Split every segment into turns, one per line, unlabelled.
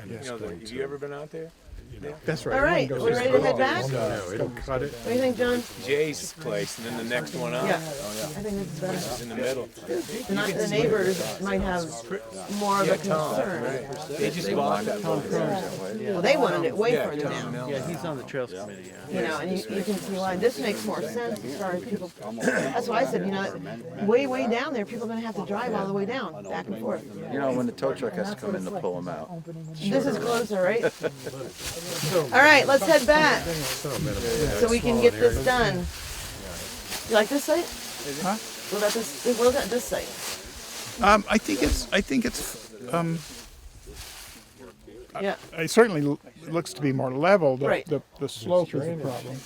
and
Yeah.
it's
You know, the-
going
have you ever
to,
been out there?
you know,
Yeah.
That's right.
All right,
Everyone
we're
goes-
ready to head back? What
No, it'll cut it.
do you think, John?
Jay's place, and then the next one up
Yeah,
is
I think this is better.
in the middle.
Not the neighbors might have more of a concern.
They just bought that place.
Well, they wanted it way
Yeah,
further
Tom
down,
Mel-
Yeah, he's on the trails committee, yeah.
you know, and you, you can see why. This makes more sense as far as people, that's why I said, you know, way, way down there, people are gonna have to drive all the way down, back and forth.
You know, when the tow truck has to come in to pull them out.
This is closer, right? All right, let's head back so we can get this done. You like this site?
Huh?
What about this, what about this site?
Um, I think it's, I think it's, um,
Yeah,
it certainly l- looks to be more level. The,
Right.
the, the slope is a problem.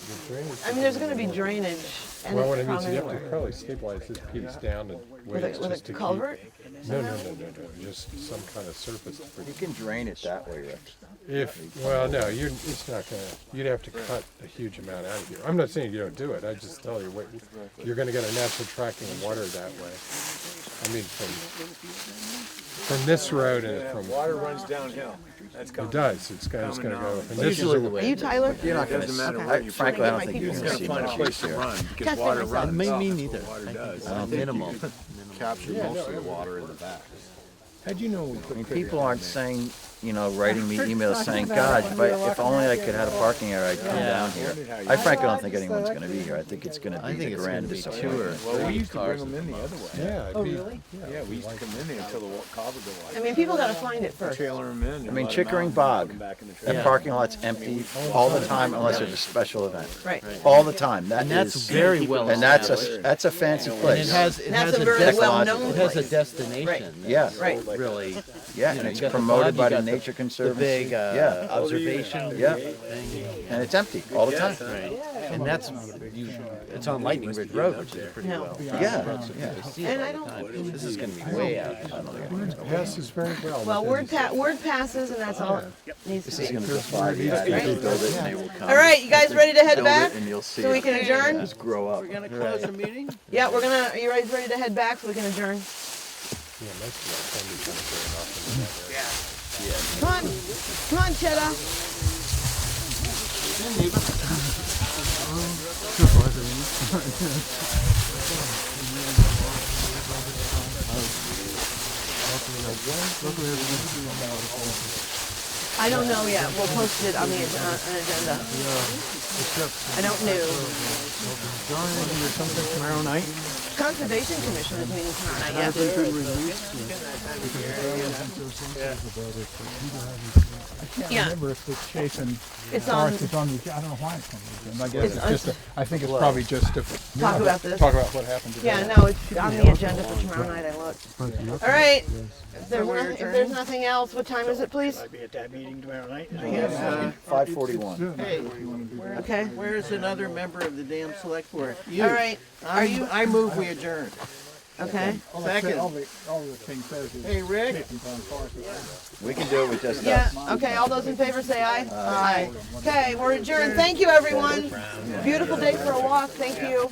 I mean, there's gonna be drainage and
Well, what
it's
I mean is
from
you have to
everywhere.
probably stabilize this piece down and
With
wait
a,
just
with
to
a
keep.
culvert?
No, no, no, no, no, just some kind of surface. for-
You can drain it that way, Rick.
If, well, no, you're, it's not gonna, you'd have to cut a huge amount out of here. I'm not saying you don't do it, I just tell you, what, you're gonna get a natural tracking of water that way. I mean, from, from this road and
That
from,
Water runs downhill. That's
it
coming.
does, it's gonna, it's gonna go. and this is
Usually
a-
the
Are you
way,
Tyler?
you're not gonna,
Doesn't
see-
matter
Okay.
I- frankly, I don't think you're
Just
You
gonna
gotta
see
find a
much
place
use
to
here.
run, because
Testing
water
myself.
runs.
Me- me
off.
neither.
Water
I think
does.
it's-
Uh, Minimal. Capture most of the water in the back.
How'd you know we
I mean,
put
people aren't saying, you know, writing me emails saying, God, if I, if only I could have a parking area, I'd come down here. I frankly don't think anyone's gonna be here. I think it's gonna
I
be
think
the
it's gonna
grand
be two or
disappointment.
Well, we
three
used to bring
cars.
them in the other way.
Yeah. it'd be-
Yeah, we used to come in there until the wa- culvert would
I
like,
mean, people gotta find it first.
trailer them in.
I mean, Chickering Bog, that
Yeah.
parking lot's empty all the time unless there's a special event.
Right.
All the time, that
And that's
is-
very well
And that's
established.
a, that's a fancy
And it
place.
has, it
That's
has
a
a
very well-known
destination, it has a
place.
destination.
Yeah.
that's
Right.
Really,
Yeah,
you
and
know, you
it's
got the
promoted
bug,
by
you
the
got the-
nature
the
conservancy.
big uh,
Yeah,
observation.
Yeah.
thing,
and it's empty all the time.
And that's, you, it's on Lightning Ridge Road, which is pretty
No.
well.
Yeah, yeah.
And I don't,
This is gonna be way out.
Passes very
Oh,
well.
well,
within
word pa, word passes and that's all it needs to be.
Build it and they will come.
All right, you guys ready to head
Build it
back?
and you'll see
So we
it
can adjourn?
just grow up.
Gonna close the meeting?
Yeah, we're gonna, are you guys ready to head back so we can adjourn?
Yeah, most of our funding comes very often.
Come on, come on, Cheddar. I don't know yet. We'll post it on the ag- uh, an agenda. I don't know. Conservation Commission is meeting tomorrow night. Yes. Yeah.
Remember if it's chasing
It's on.
Forrest is on the, I don't know why it's on the, agenda. I
It's
guess it's
on-
just, a- I think it's probably just to
Talk about this.
talk about what happened today.
Yeah, no, it's on the agenda for tomorrow night. I looked. All right. If there's, nothing, if there's nothing else, what time is it, please?
Be at that meeting tomorrow night.
Five forty-one.
Hey,
Okay.
where's another member of the damn select board? You.
All right. Are
I'm-
you
I move we adjourn.
okay?
Second. Hey, Rick?
We can do it with just
Yeah.
us.
Okay. All those in favor, say aye. Aye. Okay. We're adjourned. Thank you, everyone. Beautiful day for a walk. Thank you.